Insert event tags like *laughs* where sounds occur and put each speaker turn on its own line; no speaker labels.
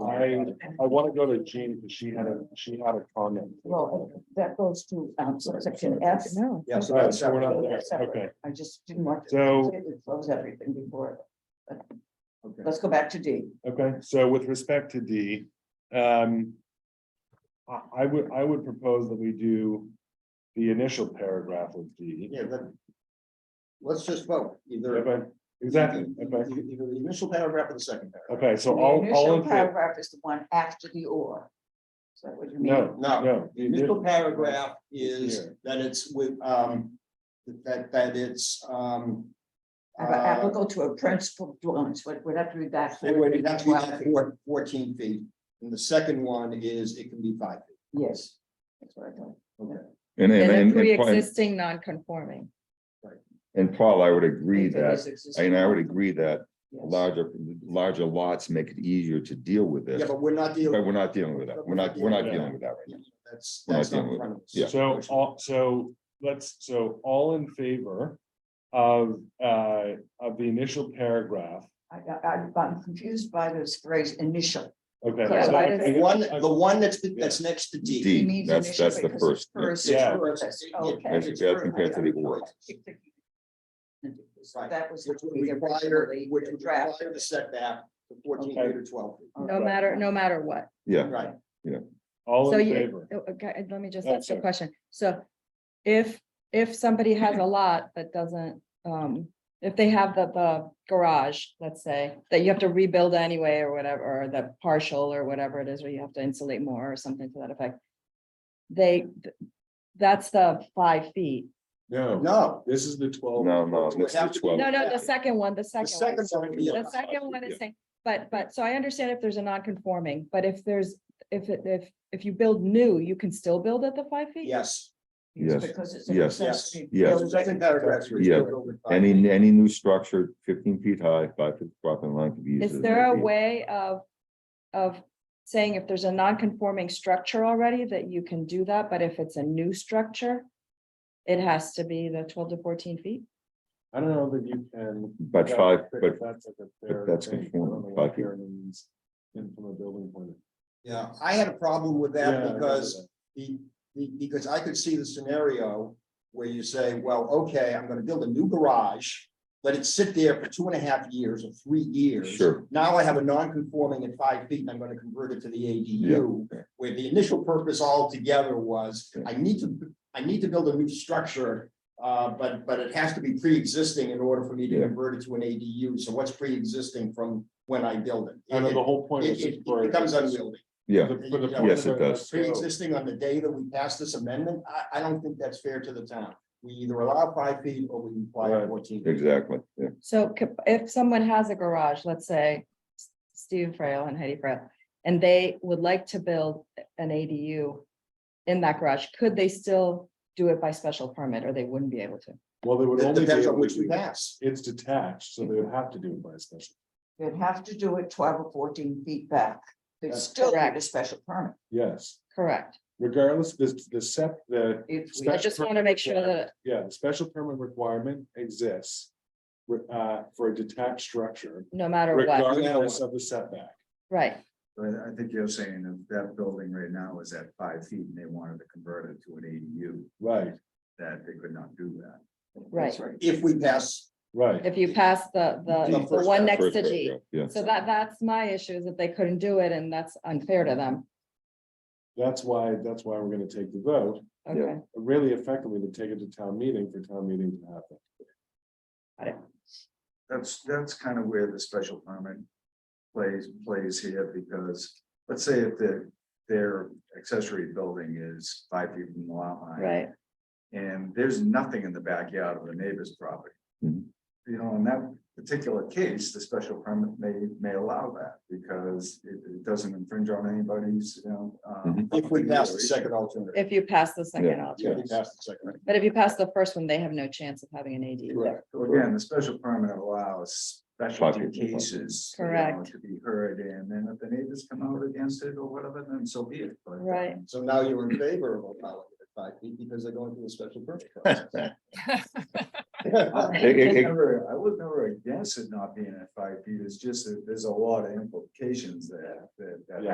I, I want to go to Jean, because she had a, she had a comment.
Well, that goes to um, section F.
No.
Yeah, so
All right,
that's,
so we're not there.
Separate.
Okay,
I just didn't want to
so,
close everything before.
okay.
Let's go back to D.
okay, so with respect to D, um. I, I would, I would propose that we do the initial paragraph of D.
Yeah, but let's just vote either.
Okay, Exactly,
Either
okay,
either the initial paragraph or the second paragraph.
okay, so
The
all, all
initial
in favor,
Paragraph is the one after the or. Is that what you mean?
no,
No,
no.
the initial paragraph is
Here.
that it's with, um, that, that it's, um.
Ab-
uh,
Applicable to a principal dwelling, so we'd have to read that.
It would have to be
Well,
that four- fourteen feet, and the second one is it can be five. feet.
Yes. That's what I thought.
And,
And
and,
a
and- and, Pa-
pre-existing non-conforming.
and Paul, I would agree
That is
that,
existing.
and I would agree that
Yes.
larger, larger lots make it easier to deal with
Yeah,
this.
but we're not
But
dealing,
we're not dealing with that. We're not, we're not dealing with that right now.
that's,
We're not
that's not in
dealing
front of us.
yeah.
So, uh, all, so let's, so all in favor of, uh, of the initial paragraph.
I, I, I'm confused by this phrase initial.
Okay.
Yeah,
so-
why does-
The
okay,
one, the one that's, that's next to D.
It
D,
means
that's,
initial
that's the
because it's
first. yeah.
First.
Yeah.
First, okay.
As- as compared to the or.
So That was.
Which
what
would
we
require,
originally
which would require
drafted.
the setback to fourteen
Okay.
feet or twelve feet.
No
Right.
matter, no matter what.
Yeah,
Right,
All
So
in
you-
favor.
Oh, Okay, and let me just
Oh,
ask a
sorry.
question. So if, if somebody has a lot that doesn't, um, if they have the, the garage, let's say, that you have to rebuild anyway or whatever, or the partial or whatever it is, where you have to insulate more or something to that effect. They, th- that's the five feet.
No,
no,
this is the twelve.
no, no,
Would
that's
have
the
to be-
twelve.
No, no, the second one, the
the
second one.
second one would be
The
allowed.
second one
yeah.
is saying, but, but, so I understand if there's a non-conforming, but if there's, if, it- if, if you build new, you can still build at the five feet?
Yes.
Yes,
Because it's. a
yes,
necessity
yes.
The
built in.
Second paragraph. is
Yeah.
filled with five.
Any, any new structure fifteen feet high, five feet property line could be used.
Is
as
there a
ADU.
way of, of saying if there's a non-conforming structure already that you can do that, but if it's a new structure? It has to be the twelve to fourteen feet?
I don't know that you can.
But
Yeah,
five,
but
but
That's like a
but
fair
that's
thing. I don't
conforming,
know what
five feet.
fair means in from a building point of.
Yeah, I had a problem with
Yeah, I
that
remember
because
that.
the, the- because I could see the scenario where you say, well, okay, I'm gonna build a new garage. Let it sit there for two and a half years or three years.
Sure.
Now I have a non-conforming at five feet and I'm gonna convert it to the ADU. Where the initial purpose altogether was,
Yeah.
I need to, I need to build a new structure. Uh, but, but it has to be pre-existing in order for me to
Yeah.
convert it to an ADU. So what's pre-existing from when I build it?
I know
It-
the whole point
It,
is.
it
just for-
it becomes unwieldy.
Yeah,
for the- for the
Yes,
point of
it does.
so-
pre-existing on the day that we pass this amendment, I, I don't think that's fair to the town. We either allow five feet or we require
Right.
fourteen. feet.
exactly, yeah.
So c- if someone has a garage, let's say S- Steve Frail and Heidi Frail, and they would like to build an ADU in that garage, could they still do it by special permit or they wouldn't be able to?
Well, they would
It
only be
depends on
able
which
to,
we
do it-
pass.
it's detached, so they would have to do it by special.
You'd have to do it twelve or fourteen feet back. They'd
That's
still need a
correct.
special permit.
Yes,
Correct.
regardless, this, the set, the,
If we,
I
Special
just want to make sure that
yeah, the special permit requirement exists. re- Uh, for a detached structure,
no matter what,
regardless of the setback.
right?
But I think you're saying that that building right now is at five feet and they wanted to convert it to an ADU,
Right,
that they could not do that.
Right.
If we pass,
right.
If you pass the,
The
the, the
first
one
step,
next
First
to G.
paragraph, Yeah.
So that, that's my issue is that they couldn't do it and that's unfair to them.
That's why, that's why we're gonna take the vote,
Yeah.
Okay.
really effectively to take it to town meeting for town meeting to happen.
That's, that's kind of where the special permit plays, plays here, because let's say if the, their accessory building is five feet from the lot line.
Right.
And there's nothing in the backyard of the neighbor's property.
Mm-hmm.
Mhm.
You know, in that particular case, the special permit may, may allow that, because it, it doesn't infringe on anybody's, you know. um,
if we pass the second alternative.
If you pass the second
If
option.
we pass the second.
But if you pass the first one, they have no chance of having an AD.
Correct.
So again, the special permit allows specialty
Five people.
cases. you know,
Correct.
To be heard, and then if the neighbors come out against it or whatever, then so be it. But,
Right.
um,
So *laughs*
*laughs*
now you're in favor of allowing it at five feet because they're going through a special permit process.
It-
I was
it- it-
never- I was never
*laughs*
against it not being at five feet, it's just that there's a lot of implications there, that, that